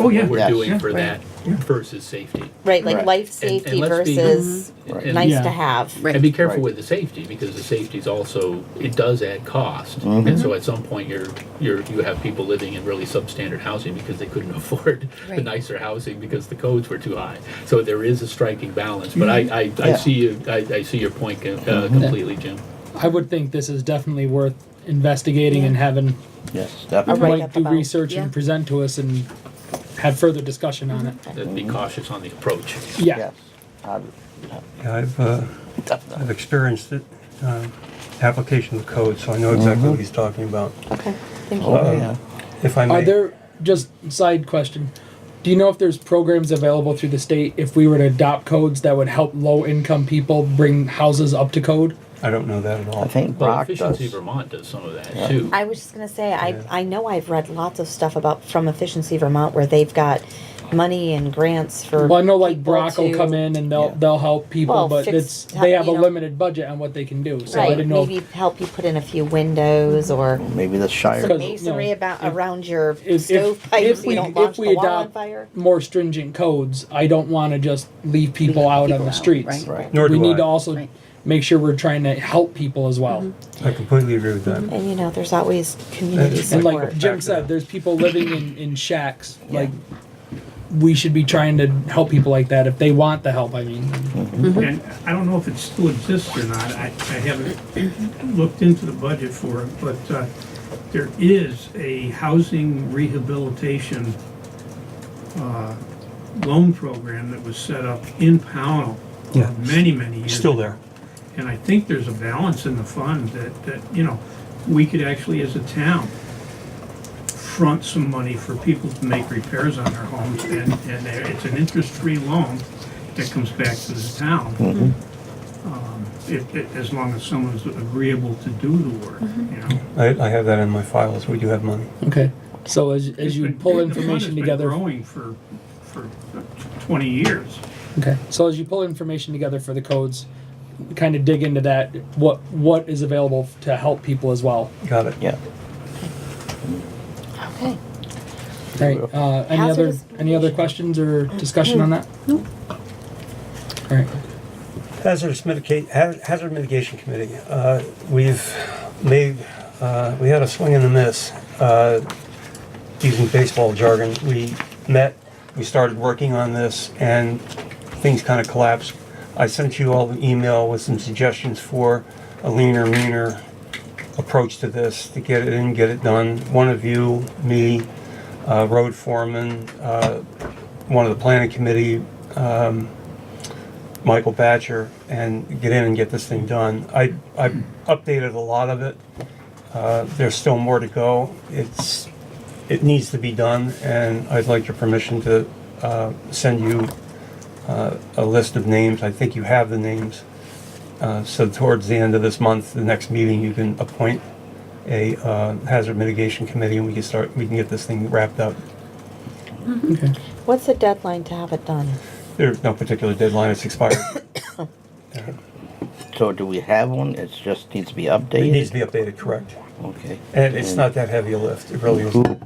Oh, yeah. we're Yes. doing Yeah. for that Yeah. versus safety. Right, like Right. life And- and safety let's be- versus Right. and- nice Yeah. to have. Right. And be careful Right. with the safety, because the safety's also, it does add cost. Mm-hmm. And so at some point, you're, you're, you have people living in really substandard housing because they couldn't afford the Right. nicer housing because the codes were too high. So there is a striking balance, but I, I, I Mm-hmm. Yeah. Mm-hmm. see you, I, I see your point uh, completely, Jim. I would think this is definitely worth investigating and having Yes, A definitely. write-up Mike do about- research Yeah. and present to us and have further discussion on it. Mm-hmm. That'd be cautious on the approach. Yeah. Yes, I- Yeah, I've, uh, definitely. I've experienced it, uh, application of code, so I know exactly what he's talking about. Okay, thank you. Mm-hmm. Um, Oh, yeah. If I Are may, there just side question? Do you know if there's programs available through the state if we were to adopt codes that would help low income people bring houses up to code? I don't know that at all. I think Well, Brock Efficiency does. Vermont does some of that, too. I was just gonna say, I, Yeah. I know I've read lots of stuff about, from Efficiency Vermont, where they've got money and grants for. Well, I know like people Brock will to- come in and they'll Yeah. they'll help people, Well, but fix- it's they have you a know. limited budget on what they can do. So Right, I didn't know. if- maybe help you put in a few windows or Maybe the Shire. Because- masonry no, about, if- around your if, if, stovepipes, if so you we, don't launch if the we wall on adopt fire. more stringent codes, I don't want to just leave people out on people the out, streets. right. Right. Nor we do need to I. also Right. make sure we're trying to help people as well. I completely agree with that. Mm-hmm. And you know, there's always community It's And like support. Jim said, there's people living in, in shacks. Like we should be trying to help people like that if they want the help. I mean, Mm-hmm. And I don't know if it still exists or not, I, I haven't looked into the budget for it, but, uh, there is a housing rehabilitation, uh, loan program that was set up in Pownell Yeah. many, many years. Still there. And I think there's a balance in the fund that, that, you know, we could actually, as a town, front some money for people to make repairs on their homes, and, and there- it's an interest-free loan that comes back to the town. Um, If, if- as long as someone's agreeable to do the work, you know. I, I have that in my files. We do have money. okay. So as, as you It's been- pull the fund has information been together, growing for, for twenty years. okay. So as you pull information together for the codes, kind of dig into that. What what is available to help people as well. Got it. Yeah. Okay. All right. Uh, any other Hazardous any other questions or discussion on that? No. All right. Hazardous mitigate, hazard mitigation committee, uh, we've made, uh, we had a swing and a miss. Uh, using baseball jargon, we met, we started working on this and things kind of collapsed. I sent you all an email with some suggestions for a leaner, meaner approach to this, to get it in, get it done. One of you, me, uh, road foreman, uh, one of the planning committee, Michael Batcher and get in and get this thing done. I, I updated a lot of it. Uh, there's still more to go. It's, it needs to be done, and I'd like your permission to, uh, send you, uh, a list of names. I think you have the names. Uh, so towards the end of this month, the next meeting, you can appoint a, uh, hazard mitigation committee, and we can start, we can get this thing wrapped up. Okay. What's the deadline to have it done? There's no particular deadline, it's expired. So do we have one? It just needs to be updated? It needs to be updated, correct. Okay. And it's not that heavy a lift, it really isn't.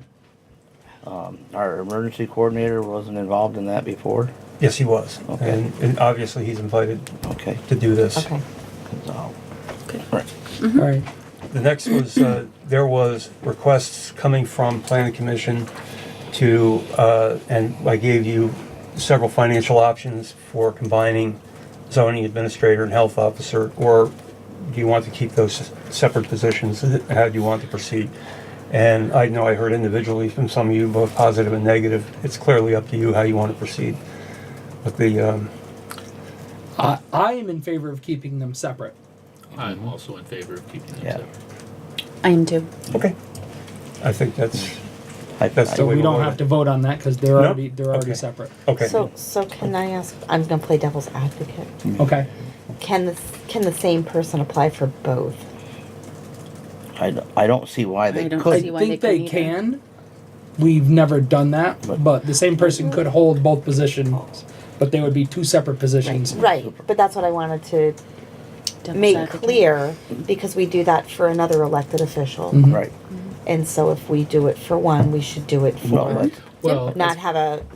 Um, Our emergency coordinator wasn't involved in that before? Yes, he was. Okay. And, and obviously, he's invited Okay. to do this. Okay. So- Okay. Right. All right. The next was, uh, there was requests coming from planning commission to, uh, and I gave you several financial options for combining zoning administrator and health officer, or do you want to keep those separate positions? How do you want to proceed? And I know I heard individually from some of you, both positive and negative. It's clearly up to you how you want to proceed. But the, um, I, I am in favor of keeping them separate. I'm also in favor of keeping them Yeah. separate. I am too. Okay. I think that's, I- That's So the I- way- we we'll don't vote have it. to vote on that because they're No? already they're already Okay. separate. okay. So, so can I ask, I'm gonna play devil's advocate. Mm. Okay. Can the, can the same person apply for both? I, d- I don't see why they I don't could. see I why think they they couldn't either. can. We've never done that, But- but the same person could hold both positions, but they would be two separate positions. Right, but that's what I wanted to Devil's make advocate. clear, because we do that for Mm-hmm. another elected official. Right. And so if we do it for one, we should do it Well, for that's- Well, not have a